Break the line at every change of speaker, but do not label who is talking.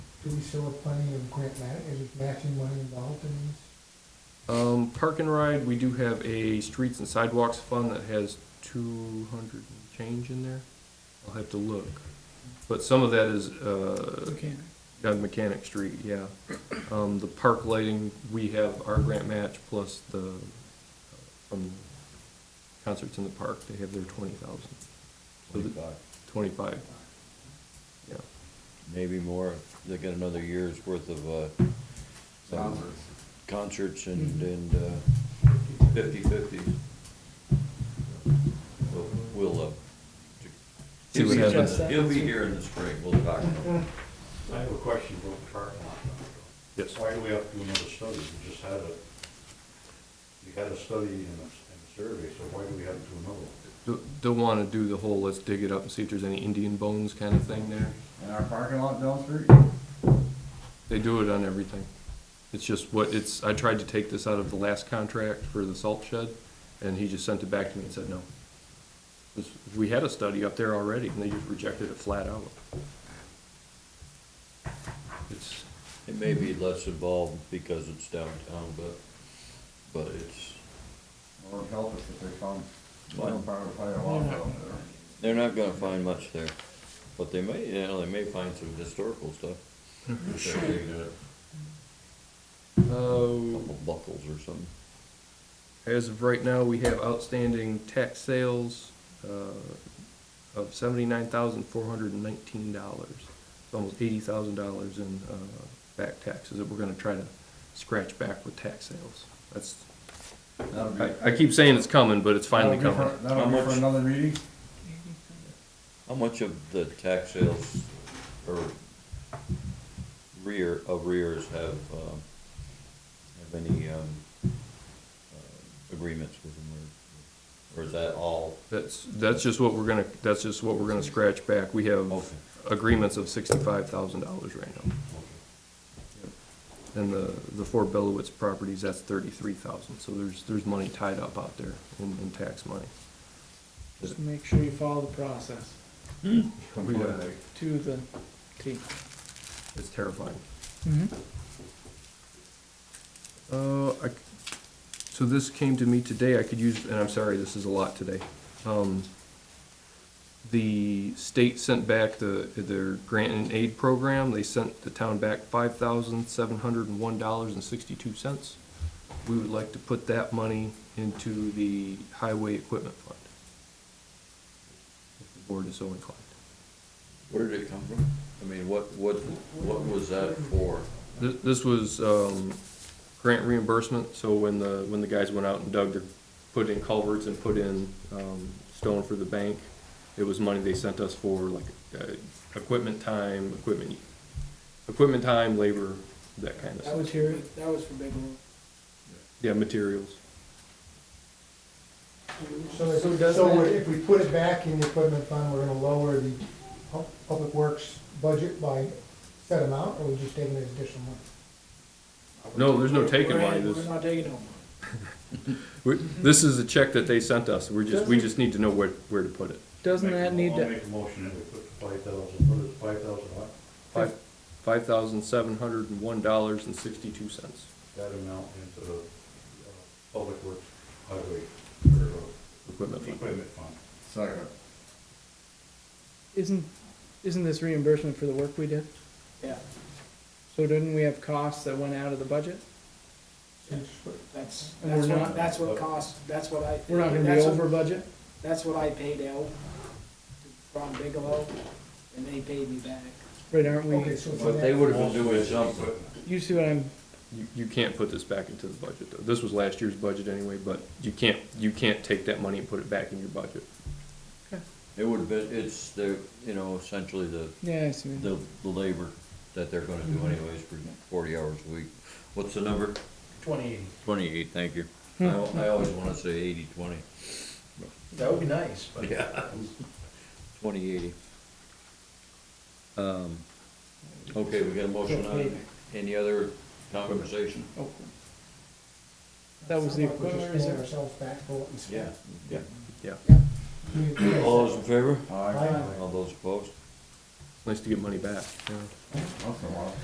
Do we still have plenty of grant ma, is it matching money involved in these?
Um, park and ride, we do have a streets and sidewalks fund that has two hundred and change in there. I'll have to look. But some of that is, uh,
Okay.
on Mechanic Street, yeah. Um, the park lighting, we have our grant match plus the, uh, from concerts in the park, they have their twenty thousand. So the-
Twenty-five,
Twenty-five, yeah.
maybe more, they got another year's worth of, uh, some concerts and, and, uh, fifty-fifty. We'll, we'll, uh,
See what
he'll be-
happens.
He'll be here in the spring, we'll talk about it.
I have a question about the parking lot.
Yes.
Why do we have to do another study? We just had a, we had a study and a, and a survey, so why do we have to do another one?
Don't, don't wanna do the whole, let's dig it up and see if there's any Indian bones kind of thing there.
In our parking lot down the street?
They do it on everything. It's just what, it's, I tried to take this out of the last contract for the salt shed, and he just sent it back to me and said, no. This- We had a study up there already, and they just rejected it flat out. It's,
It may be less involved because it's downtown, but, but it's,
Lord help us if they found,
Well-
found fire, fire alarm down
they're not gonna find much there. But they may, you know, they may find some historical stuff. If they're digging it up.
uh,
Couple buckles or something.
As of right now, we have outstanding tax sales uh, of seventy-nine thousand four hundred and nineteen dollars. Almost eighty thousand dollars in uh, back taxes that we're gonna try to scratch back with tax sales. That's,
there. That'll be-
I, I keep saying it's coming, but it's finally
that'll be
coming.
for- That'll
How
be for
much?
another meeting?
How much of the tax sales or rear, arrears have, um, have any, um, uh, agreements with them or, or is that all?
That's, that's just what we're gonna, that's just what we're gonna scratch back. We have
Okay.
agreements of sixty-five thousand dollars right now. And the, the four Bellowitz properties, that's thirty-three thousand, so there's, there's money tied up out there in, in tax money.
Just make sure you follow the process
We got-
to the T.
It's terrifying.
Mm-hmm.
Uh, I, c- so this came to me today, I could use, and I'm sorry, this is a lot today. Um, the state sent back the, their grant and aid program, they sent the town back five thousand seven hundred and one dollars and sixty-two cents. We would like to put that money into the highway equipment fund. If the board is so inclined.
Where did it come from? I mean, what, what, what was that for?
This, this was, um, grant reimbursement, so when the, when the guys went out and dug their, put in culverts and put in, um, stone for the bank, it was money they sent us for like, uh, equipment time, equipment, equipment time, labor, that kind of
That
stuff.
was here, that was for Big Room.
Yeah, materials.
So,
So
if-
does
so
that-
if we put it back in the equipment fund, we're gonna lower the pub- public works budget by set amount, or we just taking an additional money?
No, there's no taking
We're-
money,
We're
this,
not taking no money.
we- this is a check that they sent us, we're just, we just need to know where, where to put it.
Doesn't
Make a
that
mo-
need
I'll
to,
make a motion that we put five thousand, what is five thousand, what?
Five, five thousand seven hundred and one dollars and sixty-two cents.
That amount into the, uh, public works highway, or uh,
Equipment fund.
equipment fund.
Second.
isn't, isn't this reimbursement for the work we did? Yeah. So didn't we have costs that went out of the budget?
That's,
And we're
that's
not-
what, that's what cost, that's what I.
We're not gonna be
that's what-
over budget?
That's what I paid out to Ron Bigelow, and they paid me back.
Right, aren't
Okay,
we,
so for
But they
that,
would have been doing something.
you see what I'm,
You, you can't put this back into the budget, though. This was last year's budget anyway, but you can't, you can't take that money and put it back in your budget.
It would have been, it's the, you know, essentially the,
yeah, I see. what you-
the, the labor that they're gonna do anyways for forty hours a week. What's the number?
Twenty.
Twenty-eight, thank you. I, al- I always wanna say eighty-twenty.
That would be nice, but.
Yeah. Twenty eighty. Um, okay, we got a motion on, it. any other conversation?
Oh. That was the
we're just
equipment
paying
reserve.
ourselves back for what we spent.
Yeah.
Yeah,
We-
All those in favor?
Aye.
Aye.
All those opposed?
nice to get money back, yeah.
Once in a while.